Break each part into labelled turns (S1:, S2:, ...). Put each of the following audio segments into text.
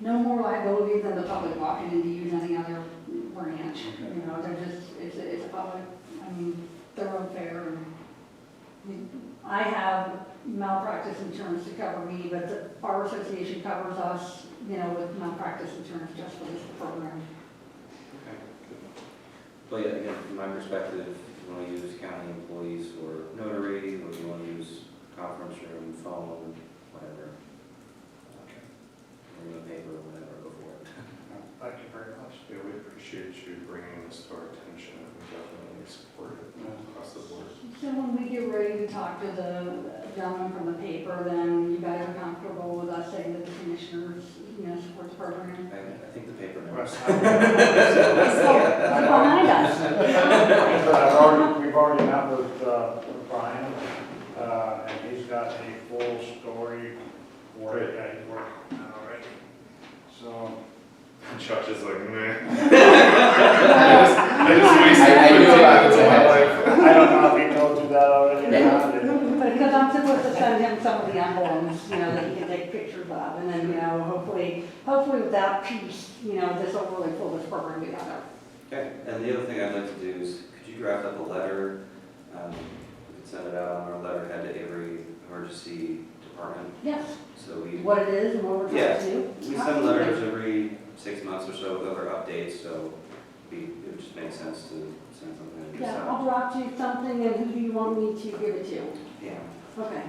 S1: no more liability than the public walking into you than any other ranch. You know, they're just, it's, a- it's a public, I mean, thoroughfare and I have malpractice insurance to cover me, but the Bar Association covers us, you know, with malpractice insurance just for this program.
S2: But yeah, again, from my perspective, if you want to use county employees or notary, or you want to use conference room, phone, whatever. uh, Or the paper, whatever, go for it.
S3: Thank you very much.
S4: Yeah, we appreciate you bringing this to our attention, and we definitely support it across the board.
S1: So when we get ready to talk to the gentleman from the paper, then you guys are comfortable with us saying that the commissioners, you know, supports program?
S2: I, I think the paper knows.
S1: It's behind us.
S3: But I've already, we've already met with uh, with Brian, uh, and he's got a full story for it, yeah, he's working on it already. So,
S4: Josh is like, meh. I just wasted
S5: I- I knew
S4: fifteen
S5: about
S4: minutes of my life.
S3: I don't know if he told you that already or not.
S1: But because I'm supposed to send him some of the emblems, you know, that he can take pictures of, and then, you know, hopefully, hopefully with that piece, you know, this will really pull this program together.
S2: Okay, and the other thing I'd like to do is, could you draft up a letter? Um, we could send it out on our letterhead to every emergency department,
S1: Yes,
S2: so we.
S1: what it is and what we're trying to do.
S2: We send letters every six months or so with our updates, so we, it would just makes sense to send something and just,
S1: Yeah,
S2: uh,
S1: I'll drop you something, and who do you want me to give it to?
S2: yeah.
S1: Okay,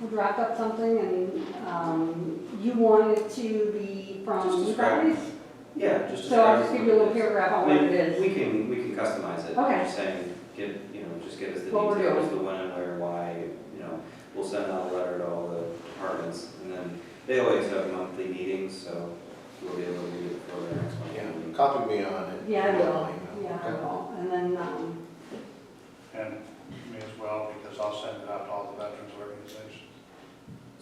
S1: we'll draft up something, and, um, you want it to be
S2: Just
S1: from you
S2: describe it.
S1: guys?
S2: Yeah, just.
S1: So I'll just
S2: describe
S1: give you a
S2: what
S1: little
S2: it is.
S1: paragraph
S2: I
S1: on what
S2: mean,
S1: it is.
S2: We can, we can customize it.
S1: Okay.
S2: I'm just saying, give, you know, just give us the
S1: What we're
S2: details, the when and where, why, you know. We'll send out a letter to all the departments, and then they always have monthly meetings, so we'll be able to read it before the next one.
S5: Yeah, copy me on it.
S1: Yeah, I will,
S5: Definitely,
S1: yeah, I
S5: okay.
S1: will, and then, um,
S3: And me as well, because I'll send it out to all the veterans organizations.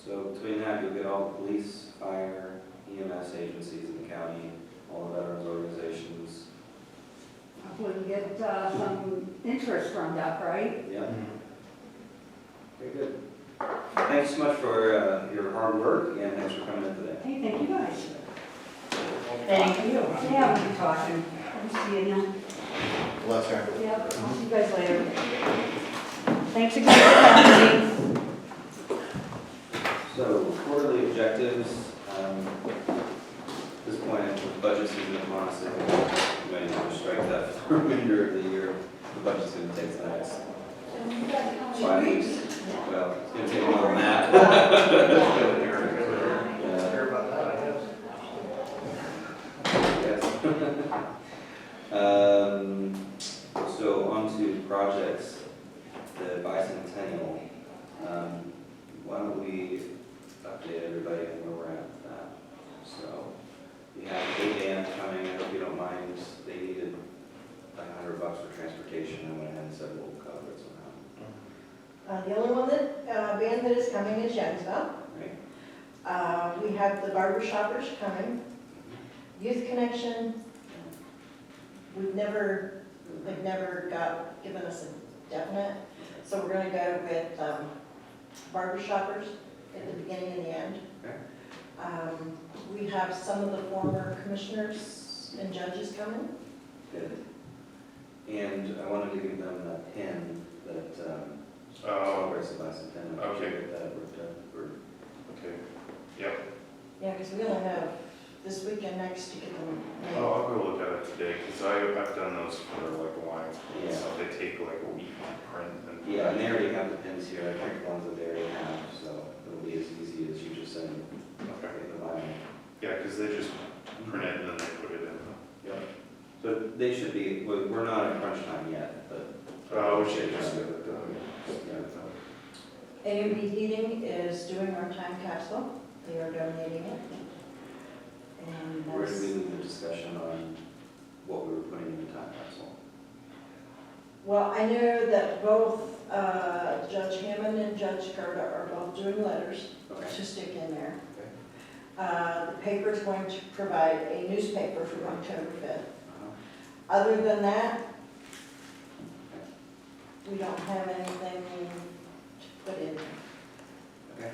S2: So between that, you'll get all the police, fire, EMS agencies in the county, all the veterans organizations.
S1: hopefully we get, uh, some interest from that, right?
S2: Yeah, very good. Thanks so much for uh, your hard work, and thanks for coming in today.
S1: Hey, thank you guys.
S6: Thank you.
S1: Yeah, we'll be talking, I'll see you now.
S5: Bless her.
S1: Yeah, I'll see you guys later. Thanks again for coming.
S2: So quarterly objectives, um, at this point, the budget's gonna come on, so we might want to strike that for the remainder of the year. The budget's gonna take the next five weeks. Well, it's gonna take more than that. Uh, Yeah.
S3: Hear about that, I guess.
S2: Yes. Um, So on to projects, the bicentennial. Um, Why don't we update everybody on where we're at with that? So we have a band coming, I hope you don't mind, they needed a hundred bucks for transportation, I went ahead and said we'll cover it somehow,
S6: Uh, The only one that, uh, band that is coming is Jensville.
S2: right?
S6: Uh, We have the barber shoppers coming, Youth Connection. We've never, they've never got, given us a definite, so we're gonna go with um, barber shoppers at the beginning and the end.
S2: Okay.
S6: Um, We have some of the former commissioners and judges coming.
S2: Good. And I wanted to give them that pin that, um,
S4: Oh,
S2: Celebrates the bicentennial.
S4: Okay.
S2: That we're done, we're-
S4: okay.
S6: Yeah, because we're gonna have this weekend next to get them. named.
S4: Oh, I'll go look at it today, because I, I've done those for like Lions,
S2: Yeah.
S4: so they take like a week to print and.
S2: Yeah, and they already have the pins here, I picked ones that they already have, so it'll be as easy as you just send,
S4: Okay.
S2: like, the line.
S4: Yeah, because they just print it and then they put it in.
S2: Yep. So they should be, we're, we're not at crunch time yet, but, Uh,
S4: Oh, we should just get it done.
S6: AMB Heating is doing our time capsule, they are donating it. And
S2: where did we
S6: that's,
S2: leave the discussion on what we were putting in the time capsule?
S6: well, I know that both uh, Judge Hammond and Judge Gerda are both doing letters
S2: Okay,
S6: to stick in there.
S2: Okay.
S6: Uh, The paper is going to provide a newspaper for October 5th.
S2: Uh-huh.
S6: Other than that, we don't have anything to put in.
S2: okay.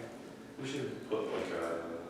S2: We should
S4: Put like a um,